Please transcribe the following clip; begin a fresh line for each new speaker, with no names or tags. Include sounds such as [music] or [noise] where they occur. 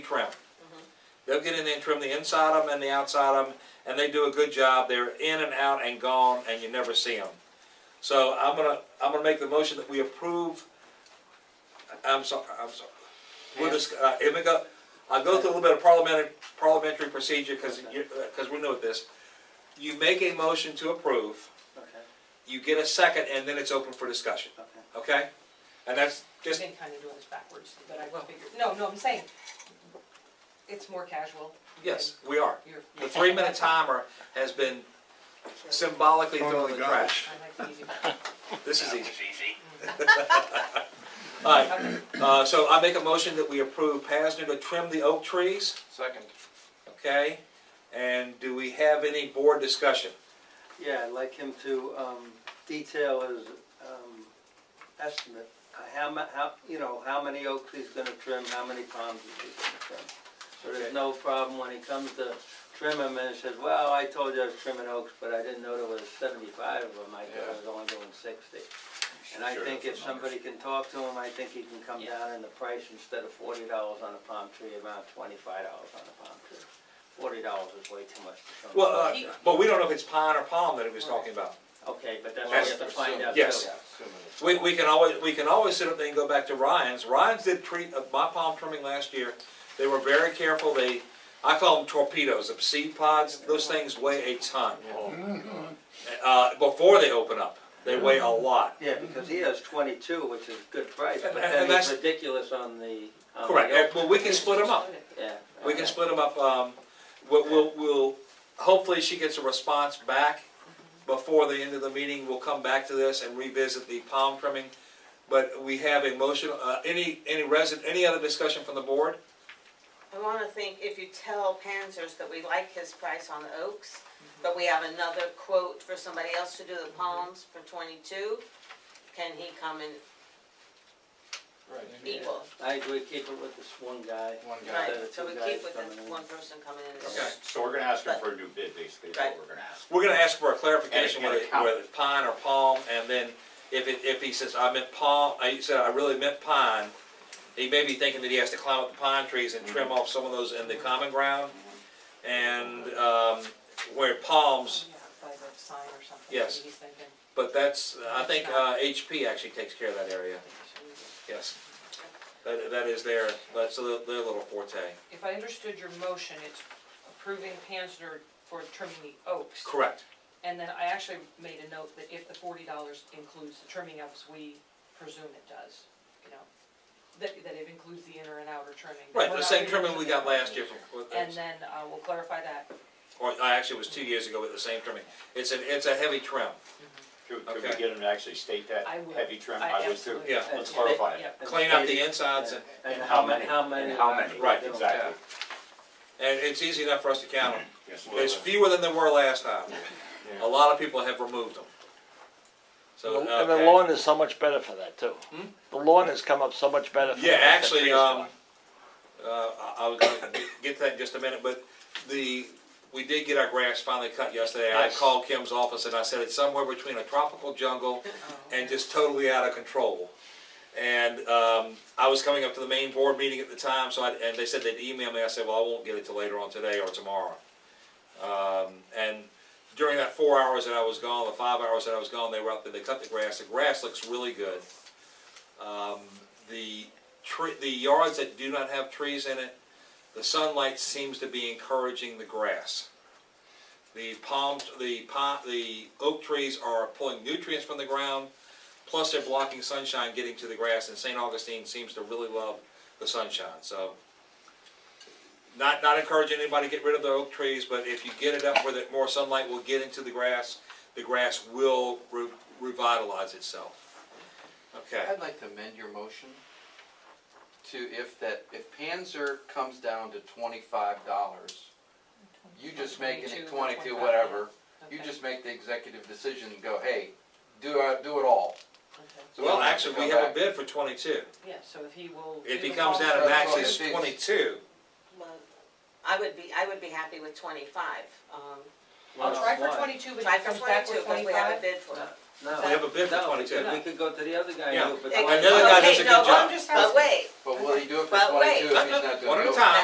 trim. They'll get in there and trim the inside of them and the outside of them, and they do a good job. They're in and out and gone, and you never see them. So I'm gonna, I'm gonna make the motion that we approve. I'm sorry, I'm sorry. We'll just, uh, let me go, I'll go through a little bit of parliamentary, parliamentary procedure, cause you, uh, cause we're new at this. You make a motion to approve,
Okay,
you get a second, and then it's open for discussion,
okay.
okay? And that's
I've
just,
been kind of doing this backwards, but I will figure, no, no, I'm saying, it's more casual.
yes, we are.
You're.
The three-minute timer has been symbolically thrown in the trash.
I like the easy button.
This is easy. [laughs] All right,
Okay.
uh, so I make a motion that we approve Pasner to trim the oak trees,
Second.
okay? And do we have any board discussion?
Yeah, I'd like him to um, detail his um, estimate, uh, how mu, how, you know, how many oaks he's gonna trim, how many palms he's gonna trim. So
Okay.
there's no problem when he comes to trim them and says, well, I told you I was trimming oaks, but I didn't know there was seventy-five of them, I thought I was only doing sixty. And I think if somebody can talk to him, I think he can come
Yeah.
down in the price, instead of forty dollars on a palm tree, about twenty-five dollars on a palm tree. Forty dollars is way too much. to trim.
Well, uh, but we don't know if it's pine or palm that he was talking about.
Okay, but that's what
That's-
we have to find out.
Yes.
too.
We, we can always, we can always sit up there and go back to Ryan's. Ryan's did treat, uh, my palm trimming last year, they were very careful, they, I call them torpedoes, the seed pods, those things weigh a ton. Uh, before they open up, they weigh a lot.
Yeah, because he has twenty-two, which is good price, but
And- and
then
that's-
he's ridiculous on the. on the
Correct,
oak.
and- but [laughs] we can split them up.
Yeah.
We can
Uh-huh. okay.
split them up, um, we'll, we'll, we'll, hopefully she gets a response back before the end of the meeting, we'll come back to this and revisit the palm trimming. But we have a motion, uh, any, any resident, any other discussion from the board?
I wanna think if you tell Panzers that we like his price on the oaks, but we have another quote for somebody else to do the palms for twenty-two, can he come and
Right.
equal?
I agree, keep it with this one guy.
One guy.
Right,
instead of
so we
two
keep
guys
with
coming
the
in.
one person coming in.
Okay.
So we're gonna ask him for a new bid, basically, is what
Right.
we're gonna ask.
We're gonna ask for a clarification
And-
whether,
and a count.
whether it's pine or palm, and then if it, if he says, I meant palm, I he said, I really meant pine, he may be thinking that he has to climb up the pine trees and trim off some of those in the common ground. And, um, where palms,
Yeah, by the sign or something.
Yes.
He's thinking,
but that's, I think, uh, HP actually takes care of that area, yes. That, that is their, that's their their little forte.
If I understood your motion, it's approving Panzer for trimming the oaks.
Correct.
And then I actually made a note that if the forty dollars includes the trimming oaks, we presume it does, you know? That, that it includes the inner and outer trimming. that
Right,
we're
the
not
same
reading
trimming we got last year from,
And then, uh, we'll clarify that.
or, I actually, it was two years ago with the same trimming. It's a, it's a heavy trim.
Could, could we
Okay.
get him to actually state that
I would.
heavy trim?
I
would too.
absolutely-
Yeah.
Let's clarify it.
Yep.
And
Clean up
state-
the insides and
yeah, And how many, how many.
And how many,
we're
Right,
doing.
exactly.
And it's easy enough for us to count them.
Yes, we'll-
There's fewer than there were last time. A lot of people have removed them. So,
And the
okay.
lawn is so much better for that too.
Hmm?
The lawn has come up so much better. for
Yeah,
that than
actually,
previous
um,
one.
uh, I I was gonna get to that in just a minute, but the, we did get our grass finally cut yesterday. I
Yes.
called Kim's office and I said it's somewhere between a tropical jungle and just totally out of control. And, um, I was coming up to the main board meeting at the time, so I, and they said they'd email me. I said, well, I won't get it till later on today or tomorrow. Um, and during that four hours that I was gone, the five hours that I was gone, they were up there, they cut the grass, the grass looks really good. Um, the tree, the yards that do not have trees in it, the sunlight seems to be encouraging the grass. The palm, the palm, the oak trees are pulling nutrients from the ground, plus they're blocking sunshine getting to the grass, and St. Augustine seems to really love the sunshine, so. Not, not encouraging anybody to get rid of the oak trees, but if you get it up where that more sunlight will get into the grass, the grass will re- revitalize itself. Okay.
I'd like to amend your motion to if that, if Panzer comes down to twenty-five dollars, you just making it
22,
twenty-two,
25,
whatever, you
Okay,
just make the executive decision and go, hey, do, uh, do it all.
okay.
So we
Well,
don't have to
actually, we
come
have a
back.
bid for twenty-two.
Yeah, so if he will.
If
do
he
the
comes down
palms-
and maxes
That's all it takes.
twenty-two,
Well, I would be, I would be happy with twenty-five, um,
I'll try for
Why?
twenty-two, but
try
if he
for
comes back
twenty-two,
with
because we have a
twenty-five.
bid for it.
No.
we have a bid for
No,
twenty-two.
We could go to the other guy
Yeah.
and do it, but.
Hey,
why
Another guy
okay,
does a good
no,
job.
But wait,
But will he do it for
But wait.
그
twenty-two if he's not doing it?
One at a time.